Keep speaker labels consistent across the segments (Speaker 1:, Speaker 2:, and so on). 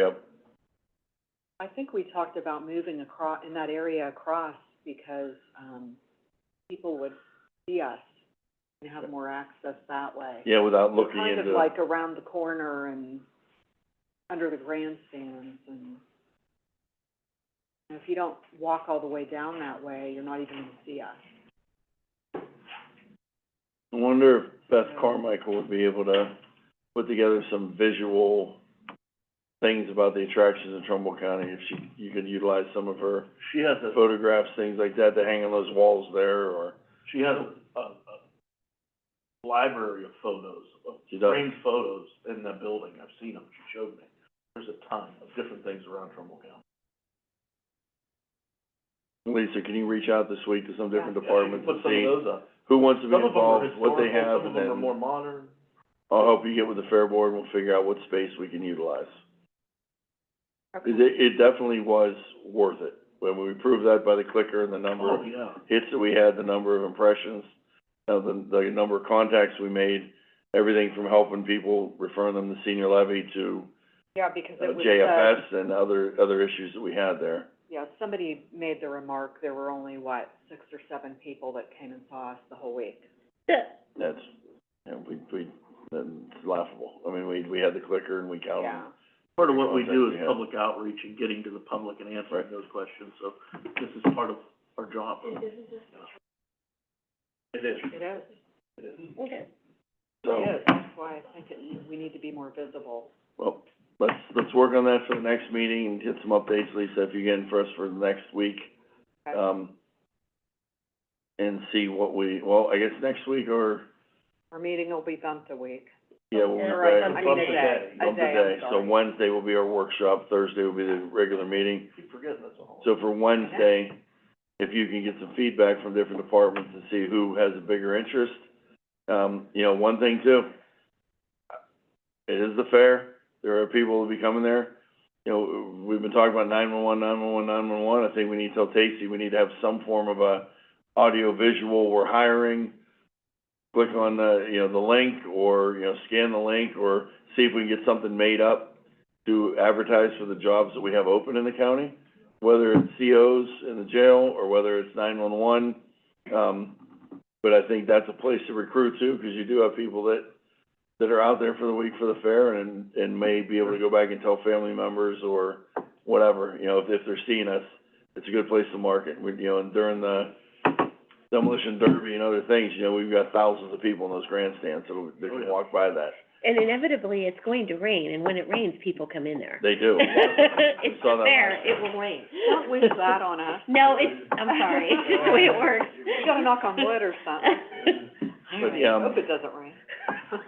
Speaker 1: Yep.
Speaker 2: I think we talked about moving across, in that area across, because, um, people would see us and have more access that way.
Speaker 1: Yeah, without looking
Speaker 2: Kind of
Speaker 1: into,
Speaker 2: like around the corner and under the grandstands and, and if you don't walk all the way down that way, you're not even gonna see us.
Speaker 1: I wonder if Beth Carmichael would be able to put together some visual things about the attractions in Trumbull County, if she, you could utilize some of her
Speaker 3: She has a,
Speaker 1: photographs, things like that, to hang on those walls there, or,
Speaker 3: she has a, a, a library of photos, of
Speaker 1: She does.
Speaker 3: framed photos in the building. I've seen them. She showed me. There's a ton of different things around Trumbull County.
Speaker 1: Lisa, can you reach out this week to some different
Speaker 2: Yeah,
Speaker 1: departments and
Speaker 3: Put some of
Speaker 1: see
Speaker 3: those up.
Speaker 1: who wants to
Speaker 3: Some
Speaker 1: be
Speaker 3: of them are
Speaker 1: involved, what they
Speaker 3: historical,
Speaker 1: have, and
Speaker 3: some of them are
Speaker 1: then
Speaker 3: more modern.
Speaker 1: I'll help you get with the fair board, and we'll figure out what space we can utilize.
Speaker 2: Okay.
Speaker 1: It, it definitely was worth it, when we proved that by the clicker and the number of
Speaker 3: Oh, yeah.
Speaker 1: hits that we had, the number of impressions, uh, the, the number of contacts we made, everything from helping people, referring them to senior levy to,
Speaker 2: Yeah, because
Speaker 1: uh,
Speaker 2: it was, uh,
Speaker 1: JFS and other, other issues that we had there.
Speaker 2: yeah, somebody made the remark, there were only, what, six or seven people that came and saw us the whole week.
Speaker 1: That's, you know, we, we, that's laughable. I mean, we, we had the clicker and we counted.
Speaker 2: Yeah.
Speaker 3: Part of what we do is
Speaker 1: Yeah.
Speaker 3: public outreach and getting to the public and answering
Speaker 1: Right.
Speaker 3: those questions, so this is part of our job. It is.
Speaker 2: It is.
Speaker 3: It is.
Speaker 1: So,
Speaker 2: Yes, that's why I think it, we need to be more visible.
Speaker 1: well, let's, let's work on that for the next meeting and get some updates, Lisa, if you get in for us for the next week.
Speaker 2: Okay.
Speaker 1: Um, and see what we, well, I guess next week or,
Speaker 2: Our meeting will be bumped a week.
Speaker 1: yeah, we'll be
Speaker 2: All
Speaker 1: back.
Speaker 2: right, I mean,
Speaker 3: Bump
Speaker 2: a
Speaker 3: the
Speaker 2: day,
Speaker 3: day.
Speaker 2: a
Speaker 1: of the
Speaker 2: day,
Speaker 1: day.
Speaker 2: I'm
Speaker 1: So
Speaker 2: sorry.
Speaker 1: Wednesday will be our workshop, Thursday will be the regular meeting.
Speaker 3: Keep forgetting that's all.
Speaker 1: So for Wednesday, if you can get some feedback from different departments and see who has a bigger interest. Um, you know, one thing too, it is the fair, there are people who'll be coming there. You know, we've been talking about 911, 911, 911. I think we need to tell Tasty, we need to have some form of a audio visual, we're hiring. Click on the, you know, the link or, you know, scan the link or see if we can get something made up to advertise for the jobs that we have open in the county whether it's COs in the jail or whether it's nine-one-one. Um, but I think that's a place to recruit to, because you do have people that, that are out there for the week for the fair and, and may be able to go back and tell family members or whatever, you know, if, if they're seeing us, it's a good place to market. We, you know, and during the demolition derby and other things, you know, we've got thousands of people in those grandstands that'll, that
Speaker 4: Oh,
Speaker 1: can walk by that.
Speaker 4: And inevitably, it's going to rain, and when it rains, people come in there.
Speaker 1: They do.
Speaker 4: It's
Speaker 1: Saw that
Speaker 4: fair,
Speaker 1: last
Speaker 4: it will rain.
Speaker 2: Don't wish that on us.
Speaker 4: No, it's, I'm sorry, it's just the way it works.
Speaker 2: You gotta knock on wood or something.
Speaker 1: But, yeah, um,
Speaker 2: Hope it doesn't rain.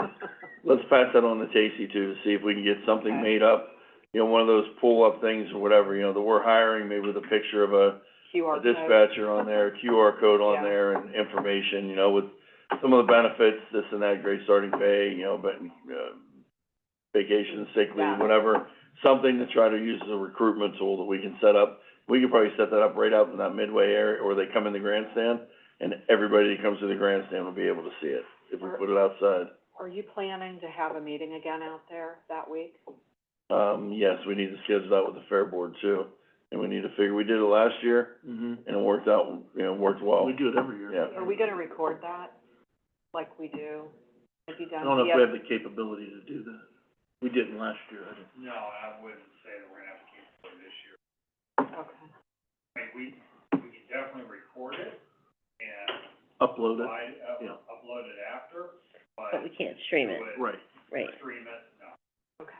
Speaker 1: let's pass that on to Casey too, to see if we can get something
Speaker 2: Okay.
Speaker 1: made up. You know, one of those pull-up things or whatever, you know, that we're hiring, maybe with a picture of a a
Speaker 2: QR code.
Speaker 1: dispatcher on there, QR code on
Speaker 2: Yeah.
Speaker 1: there and information, you know, with some of the benefits, this and that, great starting pay, you know, but, uh, vacation, sick leave,
Speaker 2: Yeah.
Speaker 1: whatever. Something to try to use as a recruitment tool that we can set up. We could probably set that up right out in that midway area, or they come in the grandstand, and everybody that comes to the grandstand will be able to see it, if we put it outside.
Speaker 2: Are you planning to have a meeting again out there that week?
Speaker 1: Um, yes, we need to schedule that with the fair board too, and we need to figure, we did it last year,
Speaker 3: hmm
Speaker 1: and it worked out, you know, worked well.
Speaker 3: We do it every year.
Speaker 1: Mm-hmm. Yeah.
Speaker 2: Are we gonna record that, like we do? Have you
Speaker 3: I
Speaker 2: done?
Speaker 3: don't know if
Speaker 2: yet?
Speaker 3: we have the capability to do that. We didn't last year, I didn't.
Speaker 5: No, I wouldn't say that we're gonna have to keep it this year.
Speaker 2: Okay.
Speaker 5: I mean, we, we can definitely record it and
Speaker 3: upload it.
Speaker 5: slide, up-
Speaker 3: yeah.
Speaker 5: upload it after, but
Speaker 4: But we can't stream it,
Speaker 5: would
Speaker 3: Right.
Speaker 4: right.
Speaker 5: stream it, no.
Speaker 2: Okay.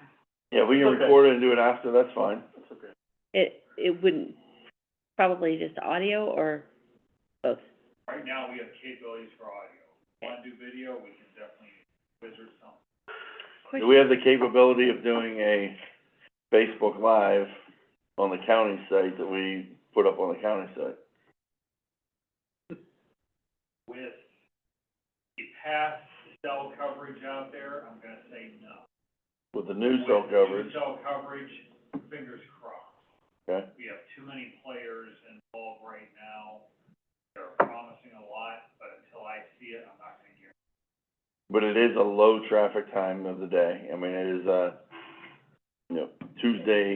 Speaker 1: Yeah, we can
Speaker 3: Okay.
Speaker 1: record it and do it after, that's fine.
Speaker 3: That's okay.
Speaker 4: It, it wouldn't, probably just audio or both.
Speaker 5: Right now, we have capabilities for audio. Want to do video, we can definitely wizard something.
Speaker 1: Do we have the capability of doing a Facebook Live on the county site that we put up on the county site?
Speaker 5: With the past cell coverage out there, I'm gonna say no.
Speaker 1: With the new cell
Speaker 5: With
Speaker 1: coverage,
Speaker 5: New cell coverage, fingers crossed.
Speaker 1: okay?
Speaker 5: We have too many players involved right now. They're promising a lot, but until I see it, I'm not gonna guarantee.
Speaker 1: But it is a low traffic time of the day, I mean, it is, uh, you know, Tuesday